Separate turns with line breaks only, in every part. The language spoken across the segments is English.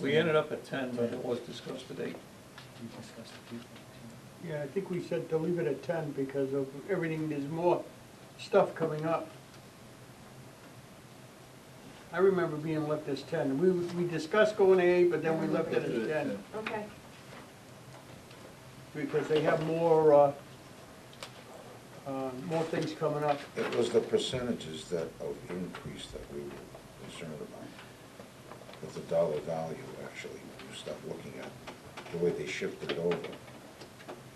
We ended up at ten, but it was discussed at eight.
We discussed a few things.
Yeah, I think we said to leave it at ten because of everything, there's more stuff coming up. I remember being left as ten. We, we discussed going to eight, but then we left it as ten
Okay,
because they have more, uh, uh, more things coming up.
It was the percentages that, of increase that we were concerned about, with the dollar value, actually, when you start looking at the way they shifted it over.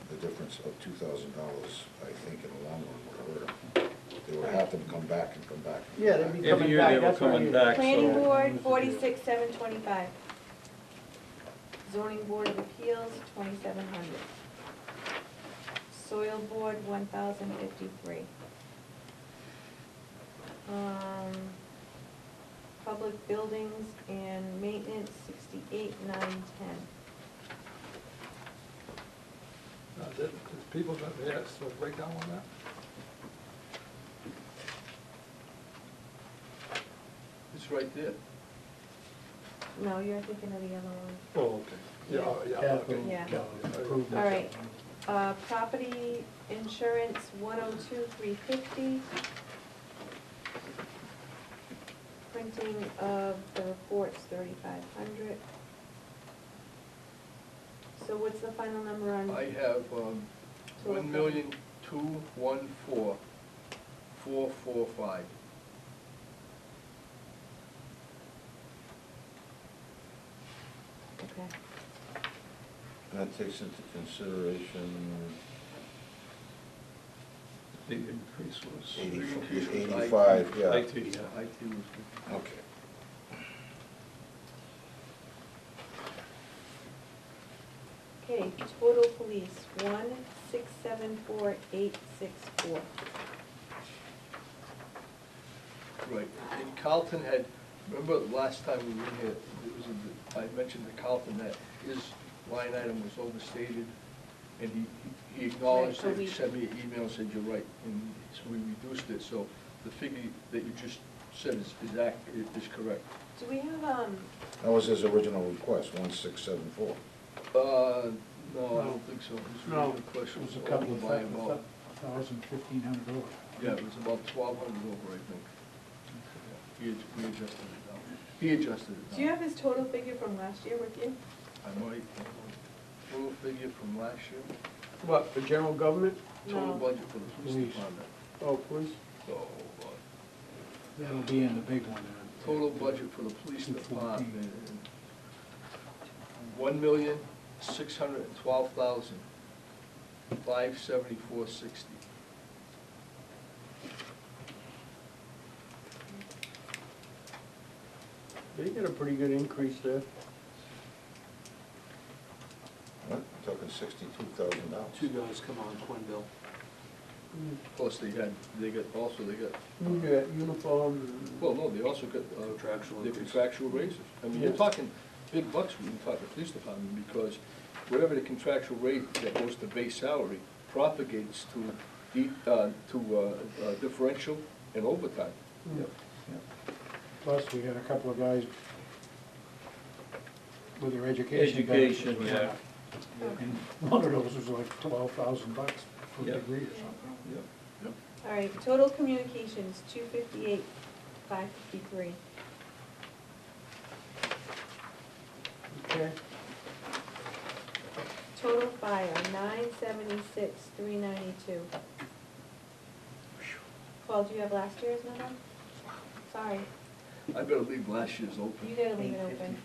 The difference of two thousand dollars, I think, in the long run would hurt them. They would have to come back and come back. and come
Yeah, they'd be
back.
Every
Coming
year
back,
they were
that's what I
coming
mean.
back,
planning
so
board, forty-six, seven twenty-five. Zoning board of appeals, twenty-seven hundred. Soil board, one thousand fifty-three. Um, public buildings and maintenance, sixty-eight, nine, ten.
Now, did, did people, got- they had a breakdown on that?
it's right there.
No, you're thinking of the other one.
Oh, okay. Yeah, oh, yeah, okay.
Yeah.
Yeah.
Improvement.
All right. Uh, property insurance, one oh two, three fifty. Printing of the reports, thirty-five hundred. So what's the final number on?
I have um,
total?
one million, two, one, four, four, four, five.
Okay,
That takes into consideration
The increase was.
eighty- eighty-five, yeah,
IT, yeah.
IT was
okay.
Okay. total police, one, six, seven, four, eight, six, four.
good. Right, and Carlton had, remember the last time we were here, it was, in the- I mentioned to Carlton that his line item was overstated, and he, he acknowledged
Right, so
it, he
we-
sent me an email, said you're right, and so we reduced it, so the figure that you just said is, is ac is correct.
Do we have, um,
That was his original request, one six seven four.
Uh, no, I don't think so. His
No.
original
It
question
was a
over
couple of,
by
thou-
about-
thou- thousand, fifteen hundred over.
Yeah, it was about twelve hundred over, I think. He ad- we adjusted it down. He adjusted it down.
do you have his total figure from last year with you?
I might, total figure from last year,
What, for general government?
total
No.
budget for the police
Police.
department.
Oh, police?
So, uh,
That'll be in the big one. uh,
total budget for the police
Two fourteen.
department, one million, six hundred and twelve thousand, five seventy-four sixty.
They get a pretty good increase there.
What, talking sixty-two thousand dollars?
two guys come on Quinn Bill.
Plus they had, they got, also they got
You get uh, uniforms. and-
Well, no, they also got, uh,
Contractual
the
increase.
contractual raises. I mean, you're
Yeah.
talking big bucks when you talk to police department, because whatever the contractual rate that goes to base salary propagates to, de- uh, to, uh, uh, differential and overtime.
Mm.
Yeah. Plus, we got a couple of guys with their education. benefits
Education,
went
yeah.
up. And one of those was like twelve thousand bucks for
Yeah.
a degree or something.
Yep.
All right, total communications, two fifty-eight, five fifty-three.
Okay.
Total fire, nine seventy-six, three ninety-two. Paul, do you have last year's number? Sorry,
I better leave last year's open.
you gotta leave it open.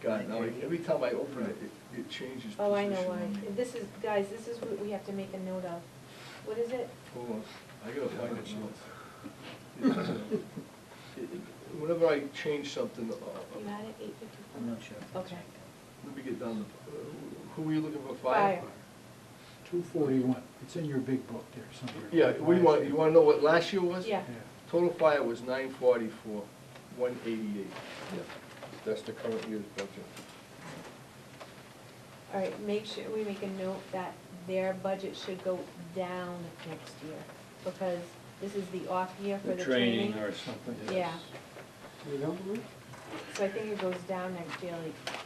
God, now, every time I open it, it, it changes position.
Oh, I know why.
on me.
This is, guys, this is what we have to make a note of. What is it?
Hold on, I gotta find it now. It- it- Whenever I change something, uh,
You had it, eight
I'm
fifty-four?
not sure.
Okay.
Let me get down the, uh, who were you looking for,
Fire.
fire?
Two forty-one, it's in your big book there somewhere.
Yeah, we want, you wanna know what last year was?
Yeah,
Yeah,
Total fire was nine forty-four, one eighty-eight. Yeah. That's the current year's budget.
all right, make sure we make a note that their budget should go down next year, because this is the off year for
The
the
training or something.
Yeah.
yes.
You don't believe?
So I think it goes down next year, like